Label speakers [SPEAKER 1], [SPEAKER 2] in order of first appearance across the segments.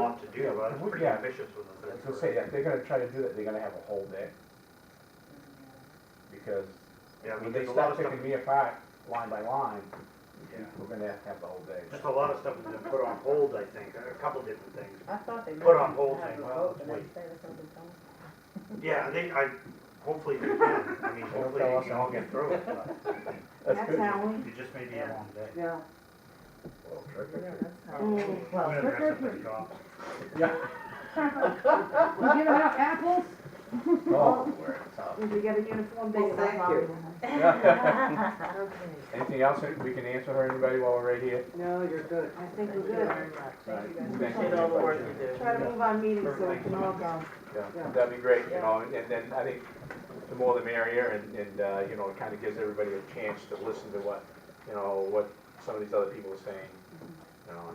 [SPEAKER 1] Yeah, well,
[SPEAKER 2] If we-
[SPEAKER 1] pretty
[SPEAKER 2] yeah.
[SPEAKER 1] ambitious with the third.
[SPEAKER 2] So say, if they're gonna try to do that, they're gonna have a whole day, because
[SPEAKER 1] Yeah,
[SPEAKER 2] when
[SPEAKER 1] but
[SPEAKER 2] they
[SPEAKER 1] there's a lot
[SPEAKER 2] start
[SPEAKER 1] of stuff,
[SPEAKER 2] picking me apart, line by line,
[SPEAKER 1] yeah,
[SPEAKER 2] we're gonna have to have the whole day.
[SPEAKER 1] just a lot of stuff has been put on hold, I think, a couple different things.
[SPEAKER 3] I thought they.
[SPEAKER 1] Put on hold,
[SPEAKER 3] Have
[SPEAKER 1] saying,
[SPEAKER 3] a
[SPEAKER 1] well,
[SPEAKER 3] vote
[SPEAKER 1] let's
[SPEAKER 3] the next
[SPEAKER 1] wait.
[SPEAKER 3] day or something, don't they?
[SPEAKER 1] Yeah, I think, I, hopefully we can, I mean,
[SPEAKER 2] Don't
[SPEAKER 1] hopefully
[SPEAKER 2] tell
[SPEAKER 1] we
[SPEAKER 2] us
[SPEAKER 1] can all
[SPEAKER 2] anything.
[SPEAKER 1] get through it, but
[SPEAKER 2] That's
[SPEAKER 4] That's
[SPEAKER 2] good.
[SPEAKER 4] how we,
[SPEAKER 1] it just may be a long day.
[SPEAKER 4] yeah.
[SPEAKER 2] Well, terrific.
[SPEAKER 3] Yeah, that's how.
[SPEAKER 4] Mm.
[SPEAKER 1] We're gonna dress up like cops.
[SPEAKER 2] Yeah.
[SPEAKER 4] We giving out apples?
[SPEAKER 2] Oh, we're at the top.
[SPEAKER 4] Did you get a uniform?
[SPEAKER 3] Well, thank you.
[SPEAKER 2] Yeah.
[SPEAKER 3] Okay.
[SPEAKER 2] Anything else that we can answer her, anybody, while we're right here?
[SPEAKER 4] No, you're good. I think we're
[SPEAKER 3] Thank you
[SPEAKER 4] good.
[SPEAKER 3] very much.
[SPEAKER 2] Right.
[SPEAKER 3] Thank you guys.
[SPEAKER 2] Thank you.
[SPEAKER 3] Appreciate all the work you do.
[SPEAKER 4] Try to move our meeting so we
[SPEAKER 1] Perfect.
[SPEAKER 4] can all go.
[SPEAKER 2] Yeah,
[SPEAKER 4] Yeah.
[SPEAKER 2] that'd be great, you know, and then I think the more the merrier, and, and, uh, you know, it kind of gives everybody a chance to listen to what, you know, what some of these other people are saying, you know,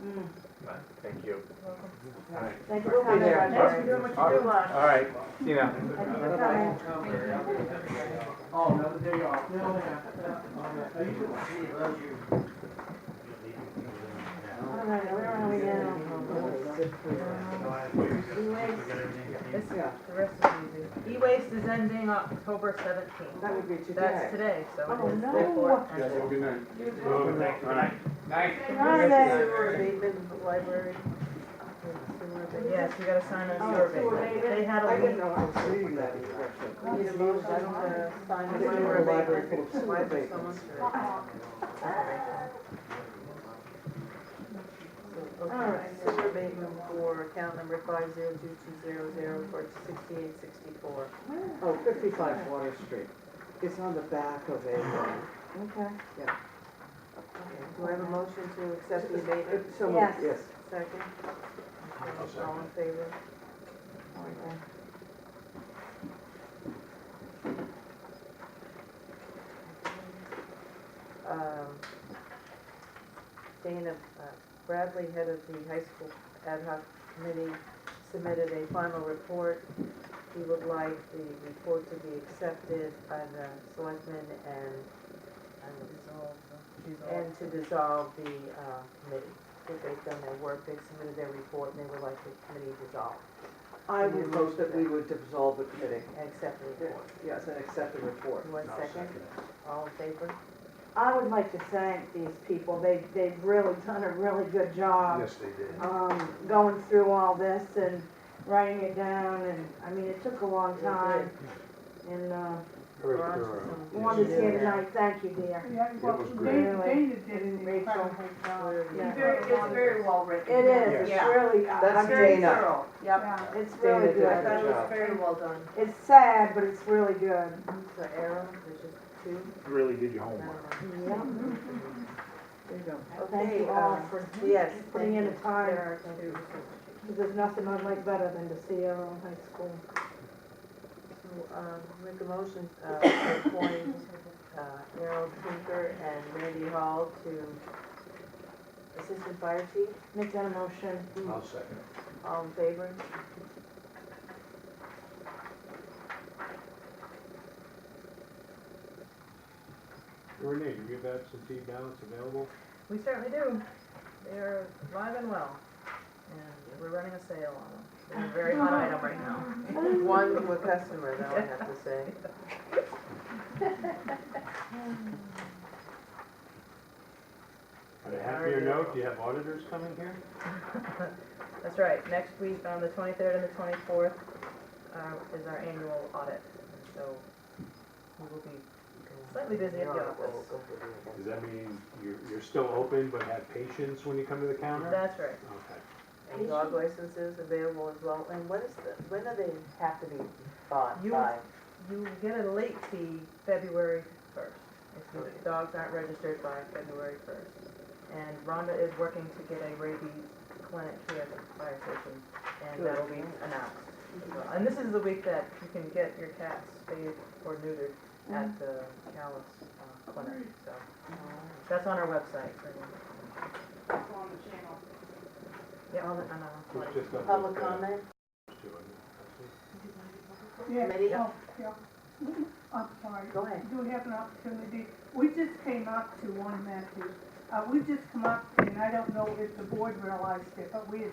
[SPEAKER 4] Mm.
[SPEAKER 2] but, thank you. All right.
[SPEAKER 4] Thank you
[SPEAKER 3] We'll be
[SPEAKER 4] for coming,
[SPEAKER 3] there.
[SPEAKER 4] Roger.
[SPEAKER 3] Thanks for doing what you do, uh, Roger.
[SPEAKER 2] All right, see you now.
[SPEAKER 4] Thank you for coming.
[SPEAKER 5] Oh, another day off.
[SPEAKER 4] All right, where are we now?
[SPEAKER 1] We got everything we need.
[SPEAKER 4] Yeah,
[SPEAKER 3] E-waste is ending October seventeenth.
[SPEAKER 4] that would be today.
[SPEAKER 3] That's today, so
[SPEAKER 4] Oh,
[SPEAKER 3] it is
[SPEAKER 4] no.
[SPEAKER 3] therefore. ended.
[SPEAKER 5] good night.
[SPEAKER 1] Oh, thanks, good night.
[SPEAKER 3] Friday.
[SPEAKER 4] library.
[SPEAKER 3] Yes, you gotta sign a
[SPEAKER 4] Oh, sewer
[SPEAKER 3] survey.
[SPEAKER 4] abatement.
[SPEAKER 3] They had a
[SPEAKER 4] I didn't
[SPEAKER 3] leak.
[SPEAKER 4] know I was reading that.
[SPEAKER 3] Need a motion to sign a sewer abatement. Why is there someone?
[SPEAKER 4] All right, sewer abatement for account number five zero two two zero zero for sixty-eight sixty-four.
[SPEAKER 6] Oh, 55 Water Street. It's on the back of a, uh,
[SPEAKER 4] Okay.
[SPEAKER 6] Yeah.
[SPEAKER 4] Okay, Do I have a motion to accept the abatement?
[SPEAKER 6] it's somewhere, yes.
[SPEAKER 4] Second? All in favor? Okay. Um, Dana uh, Bradley, head of the high school ad hoc committee, submitted a final report. He would like the report to be accepted by the selectmen and, and and to dissolve the uh, committee, that they've done their work, they've submitted their report, and they would like the committee dissolved,
[SPEAKER 6] I would vote that we would dissolve the committee.
[SPEAKER 4] and accept the report.
[SPEAKER 6] Yes, and accept the report.
[SPEAKER 4] One
[SPEAKER 1] I'll
[SPEAKER 4] second,
[SPEAKER 1] second it.
[SPEAKER 4] all in favor?
[SPEAKER 7] I would like to thank these people. They, they've really done a really good job,
[SPEAKER 1] Yes, they did.
[SPEAKER 7] um, going through all this and writing it down and, I mean, it took a long
[SPEAKER 4] They
[SPEAKER 7] time. And, uh,
[SPEAKER 4] We're on to some-
[SPEAKER 7] Wanda's
[SPEAKER 4] Yeah.
[SPEAKER 7] here tonight. Thank you, dear.
[SPEAKER 8] Yeah, well, Dana, Dana did an incredible job.
[SPEAKER 4] Yeah.
[SPEAKER 8] Very- it's very
[SPEAKER 3] well written.
[SPEAKER 7] It is, it's
[SPEAKER 3] Yeah.
[SPEAKER 7] really, I
[SPEAKER 6] That's
[SPEAKER 7] mean,
[SPEAKER 3] Very
[SPEAKER 6] Dana.
[SPEAKER 3] thorough, yep.
[SPEAKER 8] Yeah.
[SPEAKER 7] it's
[SPEAKER 6] Dana
[SPEAKER 7] really
[SPEAKER 6] did a
[SPEAKER 7] good.
[SPEAKER 6] good job.
[SPEAKER 3] very well done.
[SPEAKER 7] It's sad, but it's really good.
[SPEAKER 4] The arrow, there's just two.
[SPEAKER 1] Really did your
[SPEAKER 4] I don't
[SPEAKER 1] homework.
[SPEAKER 4] know.
[SPEAKER 6] There you go.
[SPEAKER 7] Thank you
[SPEAKER 4] Okay,
[SPEAKER 7] all
[SPEAKER 4] um,
[SPEAKER 7] for
[SPEAKER 4] Yes.
[SPEAKER 7] putting in the
[SPEAKER 4] There
[SPEAKER 7] time,
[SPEAKER 4] are two.
[SPEAKER 7] because there's nothing I'd like better than to see our own high school.
[SPEAKER 4] So, um, make a motion, uh, to appoint, uh, Errol Tinker and Randy Hall to assistant fire chief,
[SPEAKER 7] Make that a motion.
[SPEAKER 1] I'll second it.
[SPEAKER 4] all in favor?
[SPEAKER 5] Renee, you give that some tea balance available?
[SPEAKER 3] We certainly do. They're live and well, and we're running a sale on them. They're a very hot item right now.
[SPEAKER 4] One to a customer, though, I have to say.
[SPEAKER 5] On a happier note, do you have auditors coming here?
[SPEAKER 3] That's right, next week on the twenty-third and the twenty-fourth, uh, is our annual audit, so we will be slightly busy at the office.
[SPEAKER 5] Does that mean you're, you're still open but have patience when you come to the counter?
[SPEAKER 3] That's right.
[SPEAKER 5] Okay.
[SPEAKER 4] And dog licenses available as well, and what is the, when do they have to be bought
[SPEAKER 3] You-
[SPEAKER 4] by?
[SPEAKER 3] You get a late fee February first, if your dogs aren't registered by February first. And Rhonda is working to get a rabies clinic here at the fire station, and that'll be announced as well. And this is the week that you can get your cats spayed or neutered at the Callis uh, clinic, so. That's on our website, so. It's on the channel. Yeah, on, the- on our
[SPEAKER 5] Just- just up
[SPEAKER 4] Public
[SPEAKER 5] with, uh,
[SPEAKER 4] comment?
[SPEAKER 5] two of them.
[SPEAKER 8] Yeah,
[SPEAKER 4] Maybe-
[SPEAKER 8] oh, yeah. I'm sorry.
[SPEAKER 4] Go ahead.
[SPEAKER 8] Do we have an opportunity? We just came up to one Matthews. Uh, we just come up, and I don't know if the board realized it, but we had